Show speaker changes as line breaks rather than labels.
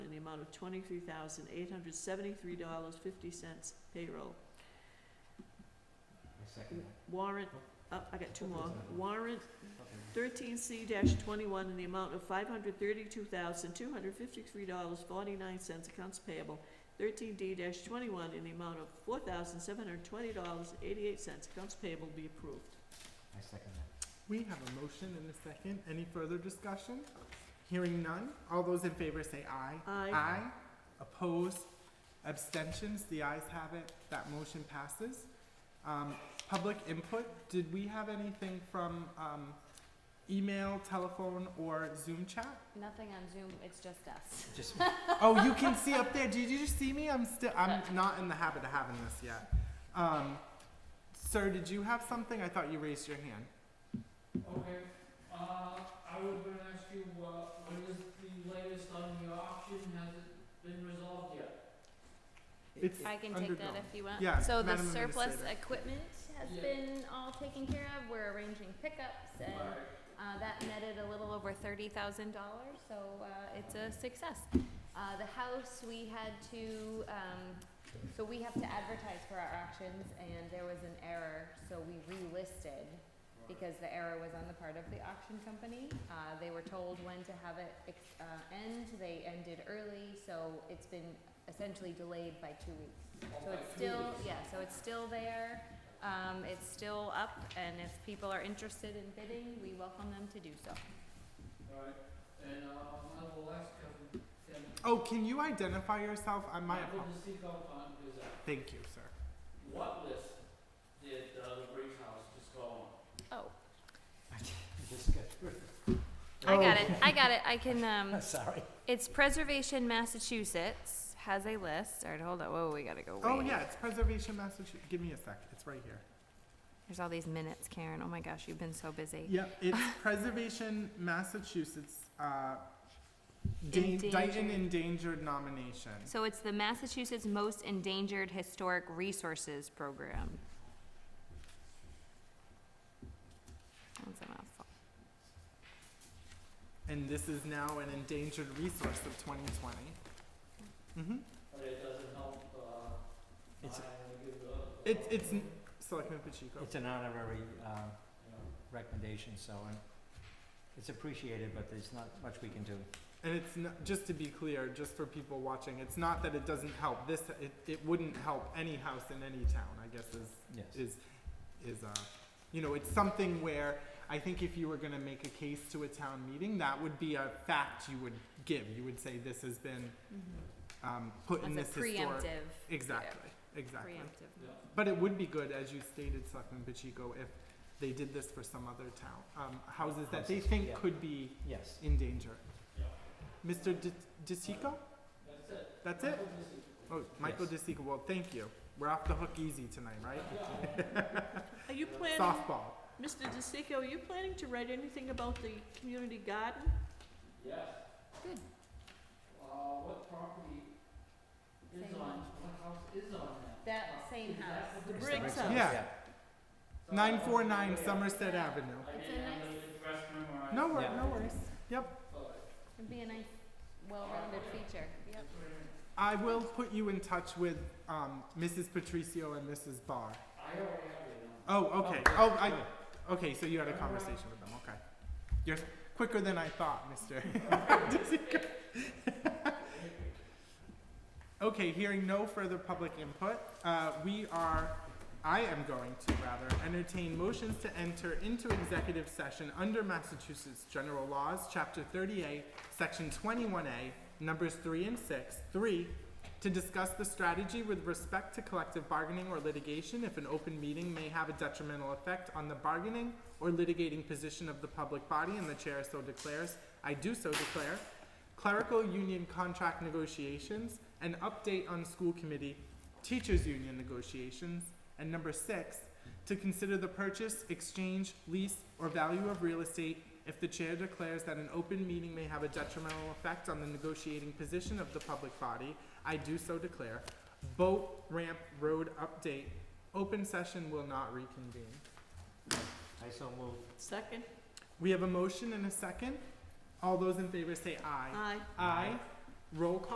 amount of twenty-three thousand eight hundred seventy-three dollars fifty cents payroll.
I second that.
Warrant, uh, I got two more. Warrant
Okay.
thirteen C dash twenty-one in the amount of five hundred thirty-two thousand two hundred fifty-three dollars forty-nine cents accounts payable. Thirteen D dash twenty-one in the amount of four thousand seven hundred twenty dollars eighty-eight cents accounts payable be approved.
I second that.
We have a motion and a second. Any further discussion? Hearing none. All those in favor say aye.
Aye.
Opposed? Abstentions? The ayes have it. That motion passes. Um, public input, did we have anything from, um, email, telephone, or Zoom chat?
Nothing on Zoom, it's just us.
Just,
Oh, you can see up there. Did you just see me? I'm still, I'm not in the habit of having this yet. Um, sir, did you have something? I thought you raised your hand.
Okay, uh, I was gonna ask you, uh, when is the latest on the auction, has it been resolved yet?
It's
I can take
undergone.
that if you want.
Yeah,
So the
Madam
surplus
Administrator.
equipment has
Yeah.
been all taken care of, we're arranging pickups and, uh, that netted a little over thirty thousand dollars, so, uh, it's a success. Uh, the house, we had to, um, so we have to advertise for our auctions and there was an error, so we relisted because the error was on the part of the auction company. Uh, they were told when to have it, ex- uh, end, they ended early, so it's been essentially delayed by two weeks.
Oh,
So
by
it's
two
still,
weeks.
yeah, so it's still there, um, it's still up, and if people are interested in bidding, we welcome them to do so.
Alright, and, uh, nonetheless, Kevin, can,
Oh, can you identify yourself? I might.
I couldn't seek up on, is, uh,
Thank you, sir.
what list did, uh, the Briggs House just go on?
Oh,
just got through.
I got it, I got it, I can,
I'm
um,
sorry.
it's Preservation Massachusetts has a list, alright, hold on, whoa, we gotta go way
Oh
back.
yeah, it's Preservation Massachusetts. Give me a sec. It's right here.
There's all these minutes, Karen, oh my gosh, you've been so busy.
Yep, it's Preservation Massachusetts. Uh, Dan- Dighton
Endangered.
Endangered nomination.
So it's the Massachusetts Most Endangered Historic Resources Program. That's a mouthful.
And this is now an endangered resource of 2020. Mm-hmm.
But it doesn't help, uh,
It's-
I give the.
It's it's n- Selectman Pacheco.
It's an honorary, uh,
Yeah.
recommendation, so, um, it's appreciated, but there's not much we can do.
And it's not, just to be clear, just for people watching, it's not that it doesn't help. This it, it wouldn't help any house in any town. I guess is
Yes.
is is uh you know it's something where I think if you were going to make a case to a town meeting, that would be a fact you would give. You would say this has been
Mm-hmm.
um, put in this
That's a
historic.
preemptive,
Exactly, exactly.
preemptive.
Yeah.
But it would be good, as you stated, Selectman Pacheco, if they did this for some other town um, houses that they
Houses,
think
yeah.
could be
Yes.
in danger.
Yeah.
Mr. D- DeSico,
That's it.
that's it. Oh, Michael
Yes.
DeSico. Well, thank you. We're off the hook easy tonight, right?
Are you planning,
Softball.
Mr. DeSico, are you planning to write anything about the community garden?
Yes.
Good.
Uh, what property is
Same
on, what house is on that?
That
Uh,
same
is that
house.
what
The
It's
Briggs
Briggs
House.
Yeah.
So,
Nine four nine
yeah.
Somerset Avenue.
I
It's a
didn't have
nice-
the address memorized.
No wor-
Yeah.
no worries.
But-
It'd be a nice, well-rounded feature. Yep.
I will put you in touch with um, Mrs. Patricio and Mrs. Barr.
I already have it now.
Oh, okay. Oh, I. Okay, so you had a conversation with them. Okay, you're quicker than I thought, Mister. okay, hearing no further public input, uh, we are. I am going to rather entertain motions to enter into executive session under Massachusetts General Laws, Chapter 38, Section 21A, Numbers 3 and 6, 3, to discuss the strategy with respect to collective bargaining or litigation if an open meeting may have a detrimental effect on the bargaining or litigating position of the public body and the chair so declares, I do so declare, clerical union contract negotiations, an update on school committee, teachers union negotiations, and number six, to consider the purchase, exchange, lease, or value of real estate if the chair declares that an open meeting may have a detrimental effect on the negotiating position of the public body, I do so declare. Boat ramp road update, open session will not reconvene.
I so move.
Second?
We have a motion and a second. All those in favor say aye.
Aye.
Aye. Roll call.